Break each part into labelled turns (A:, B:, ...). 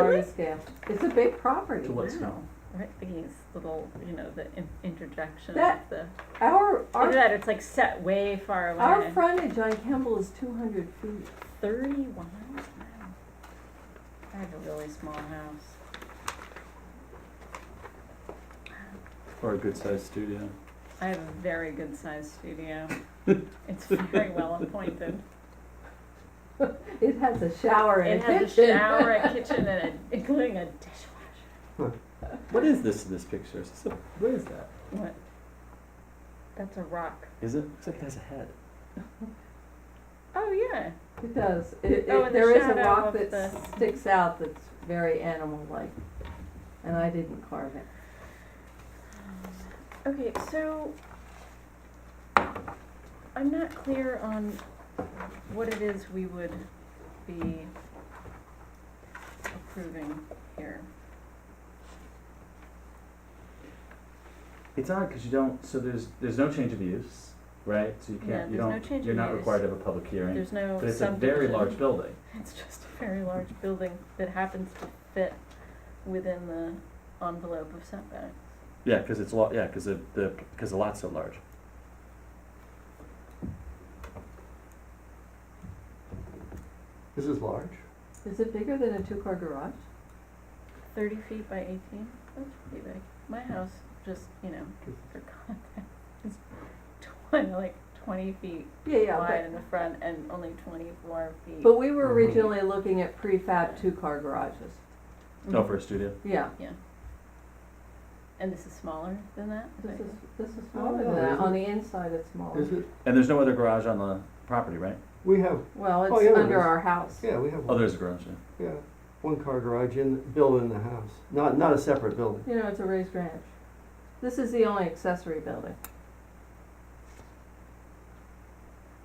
A: Really?
B: Victorian scale. It's a big property.
C: To what
B: wow.
C: scale?
A: Right, Vicky's little, you know, the in- interjection
B: That-
A: of the,
B: Our,
A: look at
B: our,
A: that, it's like set way far away.
B: our frontage on Kemble is two hundred feet.
A: Thirty-one, wow. I have a really small house.
C: Or a good sized studio.
A: I have a very good sized studio. It's very well appointed.
B: It has a shower
A: It
B: and a
A: has a
B: kitchen.
A: shower, a kitchen, and a, including a dishwasher.
C: What is this in this picture? Is this a, what is that?
A: What? That's a rock.
C: Is it? Looks like it has a head.
A: Oh, yeah.
B: It does. It,
A: Oh,
B: it,
A: and the
B: there is a
A: shadow
B: rock
A: of
B: that
A: the-
B: sticks out that's very animal-like, and I didn't carve it.
A: Okay, so I'm not clear on what it is we would be approving here.
C: It's odd because you don't. So there's there's no change of use, right? So you can't.
A: Yeah,
C: you
A: there's
C: don't.
A: no change
C: you're
A: of
C: not
A: use.
C: required to have a public hearing.
A: There's no
C: but it's a very
A: subdivision.
C: large building.
A: It's just a very large building that happens to fit within the envelope of setbacks.
C: Yeah, because it's lot. Yeah, because the because the lot's so large.
A: Mm-hmm.
D: This is large.
B: Is it bigger than a two-car garage?
A: Thirty feet by eighteen, that's pretty big. My house, just, you know, for context, is twenty, like twenty feet
B: Yeah, yeah,
A: wide
B: but,
A: in the front and only twenty-four feet.
B: but we were
D: Mhm.
B: originally looking at prefab two-car garages.
C: No, Oh, for a studio.
B: Yeah,
A: And this is smaller than that? Is
B: this
A: that-
B: is, this is smaller
D: no,
B: than that.
D: isn't-
B: On the inside, it's smaller.
D: Is it?
C: And there's no other garage on the property, right?
D: We have,
B: Well,
D: Oh, yeah,
B: it's
D: there
B: under
D: is.
B: our house.
D: yeah, we have.
C: Oh,
D: one.
C: there's a garage. Yeah.
D: Yeah, one car garage in, built in the house, not, not a separate building.
B: You know, it's a raised ranch. This is the only accessory building.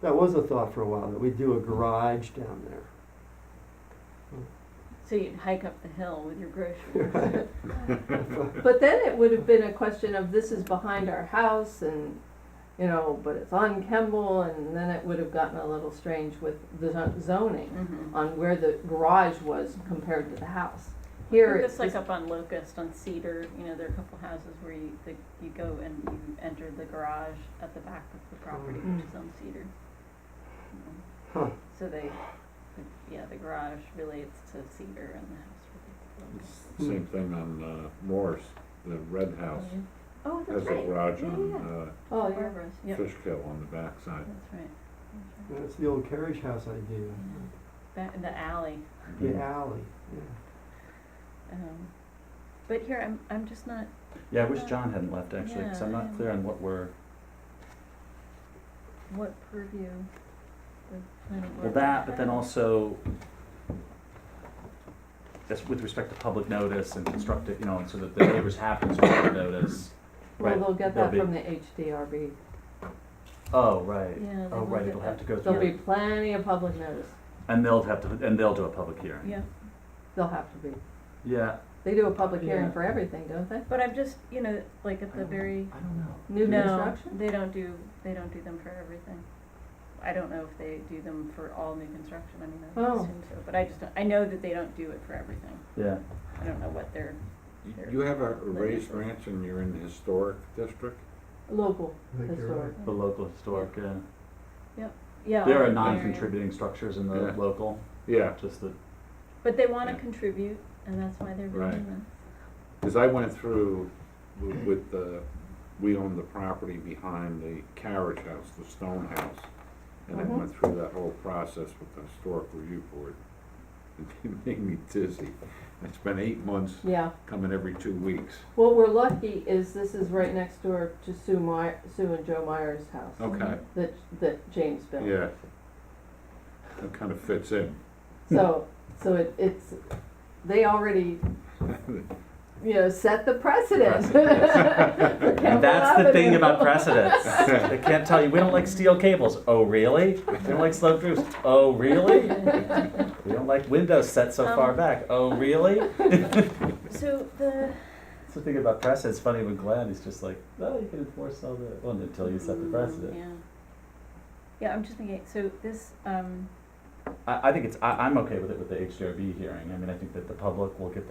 D: That was a thought for a while, that we'd do a garage down there.
A: So you'd hike up the hill with your groceries.
D: Right.
B: But then it would have been a question of this is behind our house and, you know, but it's on Kemble and then it would have gotten a little strange with the zo- zoning
A: Mhm.
B: on where the garage was compared to the house. Here
A: Look,
B: it's
A: It's like
B: just-
A: up on Locust, on Cedar, you know, there are a couple houses where you, the, you go and you enter the garage at the back of the property, which is on Cedar. Mhm.
D: Huh.
A: So they, yeah, the garage relates to Cedar and the house relates to
D: Hmm.
E: Same thing on uh, Morris, the red house,
A: Locust. Oh,
E: has
A: that's
E: a
A: right.
E: garage
A: Yeah, yeah,
E: on
B: Oh,
A: yeah.
B: yeah.
A: Barbara's,
E: uh,
A: yep, that's
E: Fishkill on the backside.
A: right. That's right.
D: That's the old carriage house idea,
A: Back in the alley.
D: the alley, yeah.
A: Um, but here, I'm, I'm just not,
C: Yeah, I wish John hadn't left actually, because I'm
A: Yeah.
C: not clear on what we're.
A: what purview the planning board.
C: Well, that, but then also, that's with respect to public notice and constructive, you know, and so that the neighbors have constructive notice.
B: Well,
C: Right,
B: they'll get
C: they'll
B: that
C: be-
B: from the HDRB.
C: Oh, right.
A: Yeah. they
C: Oh,
A: look
C: right,
A: at
C: it'll have
A: that.
C: to go
B: There'll be
C: through,
B: plenty of public notice.
C: and they'll have to, and they'll do a public hearing.
A: Yeah,
B: They'll have to be.
C: Yeah.
B: They do a public hearing
C: Yeah.
B: for everything, don't they?
A: but I'm just, you know, like at
C: I
A: the
C: don't-
A: very,
C: I don't know.
B: New
A: no,
B: construction?
A: they don't do, they don't do them for everything. I don't know if they do them for all new construction, I mean, I would
B: Oh.
A: assume so, but I just, don't- I know that they don't do it for everything.
C: Yeah,
A: I don't know what they're,
E: You-
A: There.
E: You have a a
A: That is
E: raised
A: a-
E: ranch and you're in the historic district?
B: Local
D: I think you're
B: historic.
D: right.
C: the local historic, yeah.
A: yeah. all
C: There are
A: the area.
C: non-contributing structures in the
E: Yeah.
C: local,
E: Yeah,
C: just the,
A: But they wanna
E: Yeah.
A: contribute, and that's why they're doing
E: Right.
A: them.
E: because I went through w- with the, we owned the property behind the carriage house, the stone house. And I
B: Mhm.
E: went through that whole process with the historic review board. It made me dizzy. I spent eight months
B: Yeah.
E: coming every two weeks.
B: What we're lucky is this is right next door to Sue My, Sue and Joe Meyer's house
E: Okay,
B: that, that James built.
E: yeah. That kind of fits in.
B: So, so it, it's, they already, you know, set the precedent. For Kemble
C: that's the thing
B: Avenue.
C: about precedents. They can't tell you, we don't like steel cables. Oh, really? We don't like sloped roofs. Oh, really? We don't like windows set so far
A: Um,
C: back. Oh, really?
A: So the,
C: That's the thing about precedent. It's funny when Glenn is just like, oh, you can enforce all the, well, until you set the
A: Mm,
C: precedent.
A: Yeah. Yeah, I'm just thinking, so this, um,
C: I, I think it's, I, I'm okay with it with the HDRB hearing. I mean, I think that the public will get